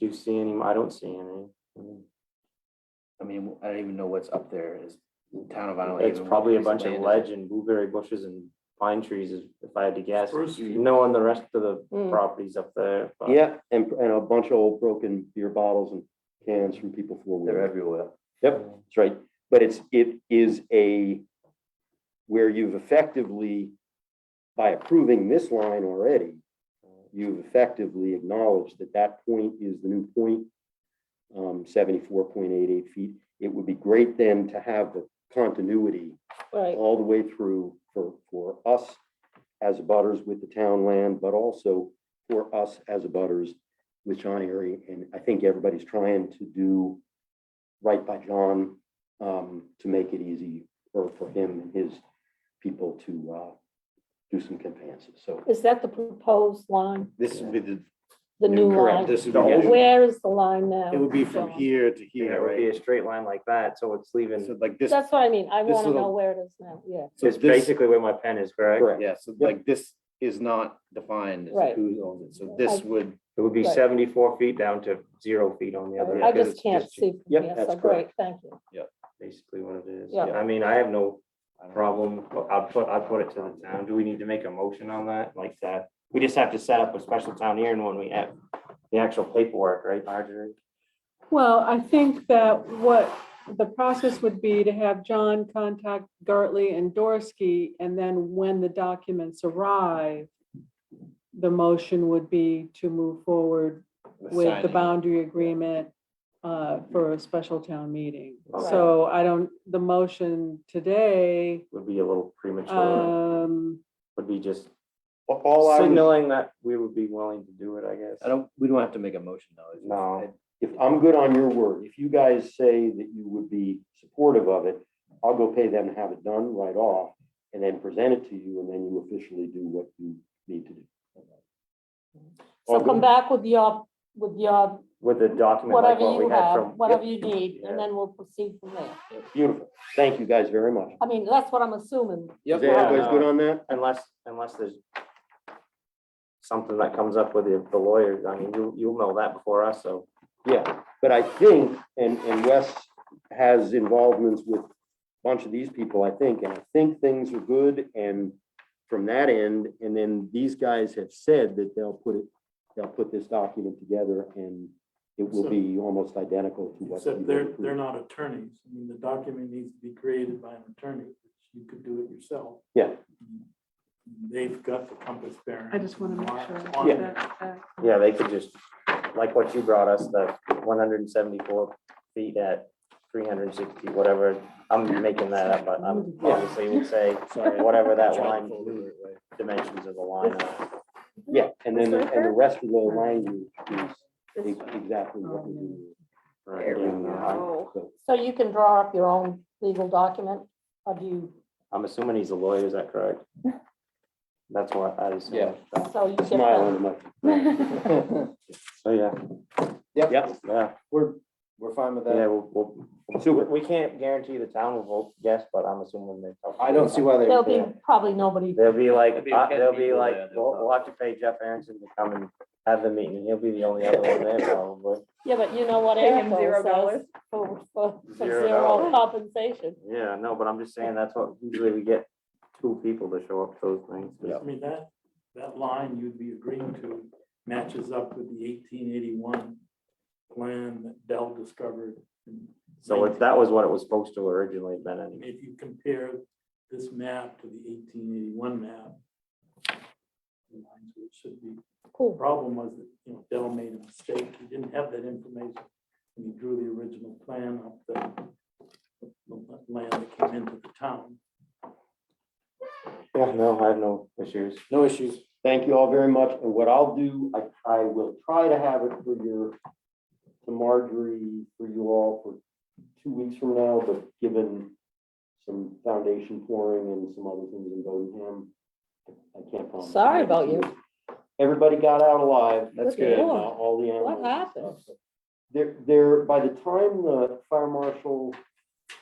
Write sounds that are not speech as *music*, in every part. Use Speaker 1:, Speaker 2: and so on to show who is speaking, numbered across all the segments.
Speaker 1: Do you see any? I don't see any.
Speaker 2: I mean, I don't even know what's up there is town of Island.
Speaker 1: It's
Speaker 2: Haven,
Speaker 1: probably a
Speaker 2: what
Speaker 1: bunch
Speaker 2: is
Speaker 1: of
Speaker 2: land?
Speaker 1: ledge and blueberry bushes and pine trees, if if I had to guess.
Speaker 3: Spruce.
Speaker 1: No on the rest of the
Speaker 4: Mm.
Speaker 1: properties up there. but-
Speaker 5: Yeah, and, and a bunch of old broken beer bottles and cans from people four
Speaker 2: They're
Speaker 5: wheeler.
Speaker 2: everywhere.
Speaker 5: Yep, that's right. But it's, it is a, where you've effectively, by approving this line already, you've effectively acknowledged that that point is the new point, um, seventy-four point eight eight feet. It would be great then to have the continuity
Speaker 4: Right,
Speaker 5: all the way through for, for us as abutters with the town land, but also for us as abutters with John Erie. And I think everybody's trying to do right by John um, to make it easy for, for him and his people to uh, do some conveyances. So
Speaker 4: is that the proposed line,
Speaker 3: This would be the.
Speaker 4: the new
Speaker 3: Correct.
Speaker 4: line?
Speaker 3: This would
Speaker 1: The
Speaker 3: be,
Speaker 1: old-
Speaker 3: the-
Speaker 4: Where is the line now?
Speaker 3: it would be from here to
Speaker 1: Yeah,
Speaker 3: here,
Speaker 1: it would be
Speaker 3: right?
Speaker 1: a straight line like that, so it's
Speaker 3: So
Speaker 1: leaving,
Speaker 3: like this,
Speaker 4: That's what I mean, I
Speaker 3: this
Speaker 4: want to know
Speaker 3: little-
Speaker 4: where it is now, yeah,
Speaker 3: so
Speaker 1: it's
Speaker 3: this,
Speaker 1: basically where my pen is, correct?
Speaker 5: correct.
Speaker 3: yeah, so like this is not defined as
Speaker 4: Right.
Speaker 3: who owns it. So this
Speaker 4: I-
Speaker 3: would,
Speaker 1: It would be
Speaker 4: Right.
Speaker 1: seventy-four feet down to zero feet on the other.
Speaker 4: I
Speaker 1: end, 'cause
Speaker 4: just
Speaker 1: it's
Speaker 4: can't see from
Speaker 5: Yep,
Speaker 4: here,
Speaker 5: that's
Speaker 4: so great, thank you.
Speaker 1: Basically what it is.
Speaker 4: Yeah.
Speaker 1: I mean, I have no
Speaker 3: I don't know.
Speaker 1: problem, I'll put, I'll put it to the town. Do we need to make a motion on that, like that? We just have to set up a special town hearing when we have the actual paperwork, right, Marjorie?
Speaker 6: Well, I think that what the process would be to have John contact Gartley and Dorsey, and then when the documents arrive, the motion would be to move forward with the
Speaker 3: signing.
Speaker 6: boundary agreement uh, for a special town meeting.
Speaker 1: Okay.
Speaker 6: So I don't, the motion today,
Speaker 1: Would be a little
Speaker 4: Uh,
Speaker 1: premature,
Speaker 6: um,
Speaker 1: would be just
Speaker 5: A- All I was,
Speaker 1: signaling that we would be willing to do it, I guess.
Speaker 2: I don't, we don't have to make a motion though.
Speaker 1: No.
Speaker 5: if I'm good on your word, if you guys say that you would be supportive of it, I'll go pay them to have it done right off and then present it to you and then you officially do what you need to do.
Speaker 4: So
Speaker 1: Well,
Speaker 4: come
Speaker 1: good.
Speaker 4: back with your, with your,
Speaker 1: With the document, like
Speaker 4: whatever
Speaker 1: what we
Speaker 4: you
Speaker 1: had
Speaker 4: have,
Speaker 1: from.
Speaker 4: whatever you need,
Speaker 1: Yeah.
Speaker 4: and then we'll proceed from there.
Speaker 5: Beautiful. Thank you guys very much.
Speaker 4: I mean, that's what I'm assuming,
Speaker 5: Is
Speaker 1: Yeah.
Speaker 5: everybody's good on that?
Speaker 1: Unless, unless there's something that comes up with the the lawyers, I mean, you, you'll know that before us, so.
Speaker 5: Yeah, but I think, and, and Wes has involvements with a bunch of these people, I think, and I think things are good and from that end, and then these guys have said that they'll put it, they'll put this document together and it will be almost identical to what. you
Speaker 3: Except
Speaker 7: They're,
Speaker 5: approved.
Speaker 7: they're not attorneys. I mean, the document needs to be created by an attorney, which you could do it yourself.
Speaker 5: Yeah.
Speaker 7: They've got the compass bearing.
Speaker 6: I just want to make sure.
Speaker 7: on- on
Speaker 5: Yeah.
Speaker 6: that, uh,
Speaker 1: Yeah, they could just, like what you brought us, the one hundred and seventy-four feet at three hundred and sixty, whatever. I'm making that up, but I'm obviously would say, whatever that line, dimensions of the line. are.
Speaker 5: Yeah, and then, and the rest of the language is ex- exactly what we do.
Speaker 1: Right, yeah.
Speaker 5: So,
Speaker 4: so you can draw up your own legal document, or do you,
Speaker 1: I'm assuming he's a lawyer, is that *laughs* correct? That's what I assume.
Speaker 2: Yeah.
Speaker 4: so you uh, get
Speaker 5: Smile
Speaker 4: that.
Speaker 5: and much.
Speaker 1: So, oh, yeah,
Speaker 5: Yep,
Speaker 1: yeah,
Speaker 2: We're, we're fine with
Speaker 1: yeah, we'll, we'll,
Speaker 5: super.
Speaker 1: we can't guarantee the town will vote yes, but I'm assuming they.
Speaker 2: I don't see why they.
Speaker 4: There'll be probably nobody,
Speaker 1: They'll be
Speaker 2: There'll
Speaker 1: like,
Speaker 2: be
Speaker 1: uh,
Speaker 2: ten
Speaker 1: they'll be
Speaker 2: people
Speaker 1: like,
Speaker 2: there, they'll
Speaker 1: we'll, we'll have to pay Jeff Aronson to come and have the meeting. He'll be the only other one there probably.
Speaker 4: yeah, but you know what
Speaker 8: Pay him
Speaker 4: Eric
Speaker 8: zero
Speaker 4: says,
Speaker 8: dollars.
Speaker 4: for, for, for
Speaker 1: Zero
Speaker 4: zero
Speaker 1: dollars.
Speaker 4: compensation.
Speaker 1: Yeah, no, but I'm just saying that's what usually we get two people to show up to those things.
Speaker 7: I mean, that, that line you'd be agreeing to matches up with the eighteen eighty-one plan that Dell discovered. in
Speaker 1: So if that was what it was supposed to originally have been
Speaker 7: 19.
Speaker 1: anyway.
Speaker 7: If you compare this map to the eighteen eighty-one map, the lines which should be The
Speaker 4: Cool,
Speaker 7: problem was that, you know, Dell made a mistake. He didn't have that information when he drew the original plan of the the land that came into the town.
Speaker 1: Yeah, no, I have no issues.
Speaker 5: No issues. Thank you all very much. And what I'll do, I, I will try to have it for your, to Marjorie, for you all for two weeks from now, but given some foundation pouring and some other things in Bodenham, I can't promise.
Speaker 4: Sorry about you.
Speaker 5: Everybody got out alive.
Speaker 4: That's
Speaker 5: and,
Speaker 4: good.
Speaker 5: uh,
Speaker 4: Lord.
Speaker 5: All the animals.
Speaker 4: what happened?
Speaker 5: There, there, by the time the fire marshal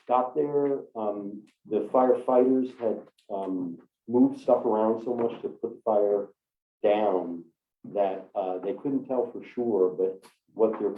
Speaker 5: got there, um, the firefighters had, um, moved stuff around so much to put the fire down that, uh, they couldn't tell for sure, but what their